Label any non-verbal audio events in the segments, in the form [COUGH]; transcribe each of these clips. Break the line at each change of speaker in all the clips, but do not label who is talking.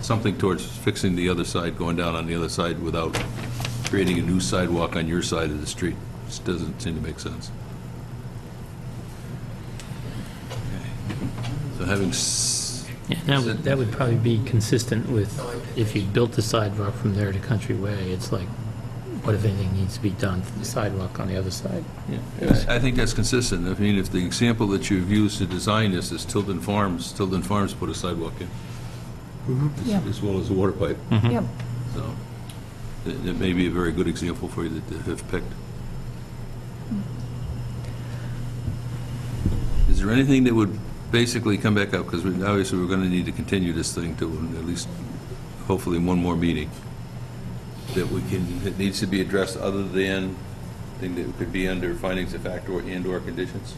something towards fixing the other side, going down on the other side without creating a new sidewalk on your side of the street. Just doesn't seem to make sense. So having, s-
Yeah, that would, that would probably be consistent with, if you built the sidewalk from there to Country Way, it's like, what if anything needs to be done for the sidewalk on the other side?
I I think that's consistent. I mean, if the example that you've used to design this is Tilden Farms, Tilden Farms put a sidewalk in,
Yeah,
as well as a water pipe.
yeah.
So it it may be a very good example for you to to have picked. Is there anything that would basically come back up? Because obviously, we're going to need to continue this thing to at least, hopefully, one more meeting that we can, that needs to be addressed other than thing that could be under findings of fact or and/or conditions?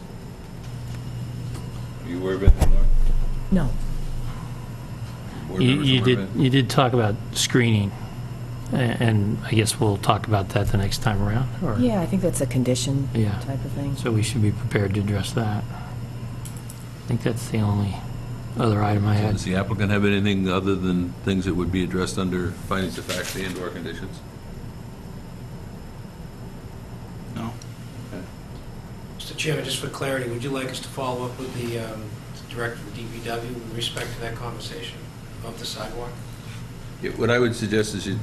Are you aware of anything, Laura?
No,
Board
You,
members aware
you
of
did,
anything?
you did talk about screening, a- and I guess we'll talk about that the next time around, or?
yeah, I think that's a condition
Yeah.
type of thing.
So we should be prepared to address that. I think that's the only other item I had.
Does the applicant have anything other than things that would be addressed under findings of fact and/or conditions?
No.
Mr. Chairman, just for clarity, would you like us to follow up with the um, director of DPW with respect to that conversation of the sidewalk?
Yeah, What I would suggest is you,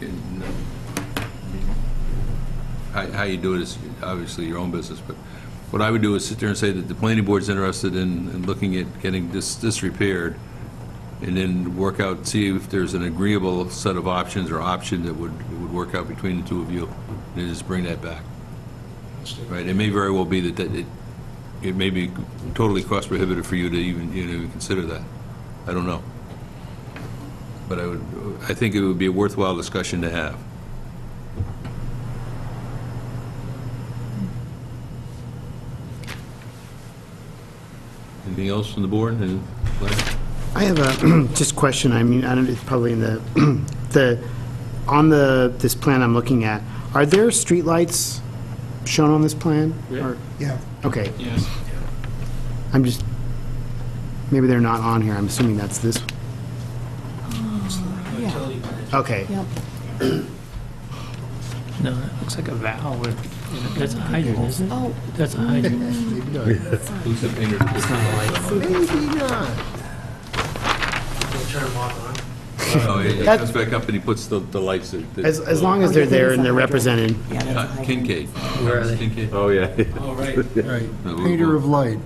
you know, how how you do it is obviously your own business, but what I would do is sit there and say that the planning board's interested in, in looking at getting this, this repaired, and then work out, see if there's an agreeable set of options or option that would, that would work out between the two of you, and just bring that back.
Mr.
Right, it may very well be that, that it, it may be totally cost prohibitive for you to even, you know, even consider that. I don't know. But I would, I think it would be a worthwhile discussion to have. Anything else from the board? And-
I have a, [CLEARS THROAT] just question, I mean, I don't, it's probably in the, [CLEARS THROAT] the, on the, this plan I'm looking at, are there streetlights shown on this plan? Or-
Yeah,
Okay,
Yes.
I'm just, maybe they're not on here, I'm assuming that's this,
Yeah,
Utility manager.
okay.
yeah.
No, that looks like a valve, or- that's a hydrant, isn't it?
Oh,
That's a hydrant.
Who's the painter?
maybe not.
We'll turn them off and on.
Oh, yeah, He comes back up and he puts the, the lights. that- that-
As, as long as they're there and they're represented. [LAUGHS]
yeah, that's a
Uh,
hydrant.
Kincaid.
Where are they?
Kincaid.
Oh, yeah.
All right.
Right.
No, we'll-
Painter of light.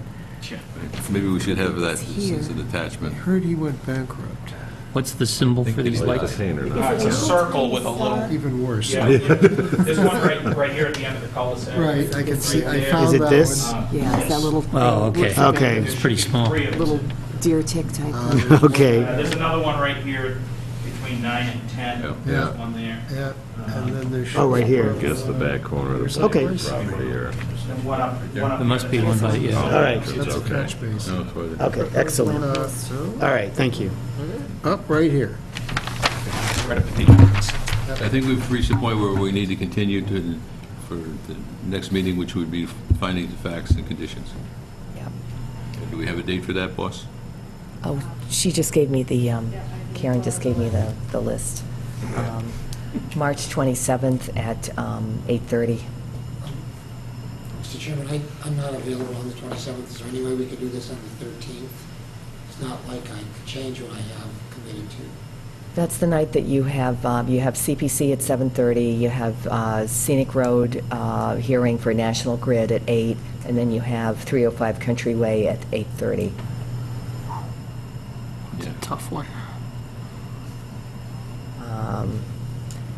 Maybe we should have that as
here.
as an attachment.
Heard he went bankrupt.
What's the symbol for these
Like
lights?
the painter, no.
Uh, It's a circle with a little,
Even worse.
yeah, yeah. there's one right, right here at the end of the cul-de-sac.
[LAUGHS] Right, I can see, I
Right there.
found
Is
that
it
one.
[LAUGHS] this?
Uh,
Yeah, it's that
yes.
little.
Oh, okay.
looks like a
Okay.
There
It's pretty
should be
small.
three of them.
Little deer tick type. thing.
Um,
Uh,
Okay,
There's another one right here between nine and 10.
Yeah.
There's one there. Uh,
Yeah, and then there's.
Oh, right here.
Guess the back corner of the
Okay.
painter property or.
And one up, one up.
There must be one by, yeah.
all right,
That's the catch space.
No, it's right there.
okay, excellent, all
Uh, so,
right, thank you.
Up right here.
Right up at the entrance.
I think we've reached a point where we need to continue to, for the next meeting, which would be finding the facts and conditions.
Yep.
Do we have a date for that, boss?
Oh, she just gave me the, um, Karen just gave me the, the list. Um, March 27th at um, 8:30.
Mr. Chairman, I, I'm not available on the 27th. Is there any way we could do this on the 13th? It's not like I could change what I have committed to.
That's the night that you have, um, you have CPC at 7:30, you have uh, Scenic Road uh, hearing for National Grid at 8, and then you have 305 Countryway at 8:30.
It's a tough one.
Um,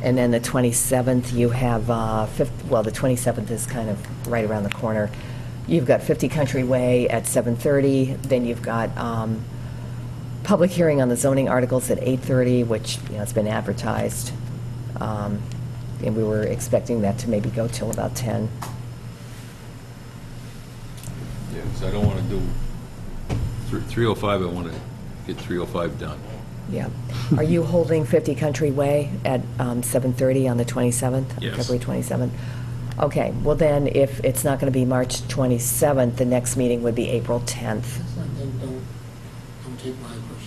And then the 27th, you have, uh, fif- well, the 27th is kind of right around the corner. You've got 50 Country Way at 7:30, then you've got um, public hearing on the zoning articles at 8:30, which, you know, it's been advertised, Um, and we were expecting that to maybe go till about 10.
Yeah, because I don't want to do, thr- 305, I want to get 305 done.
Yeah. Are you holding 50 Country Way at um, 7:30 on the 27th?
Yes.
February 27th? Okay, well then, if it's not going to be March 27th, the next meeting would be April 10th.
Then don't, don't take my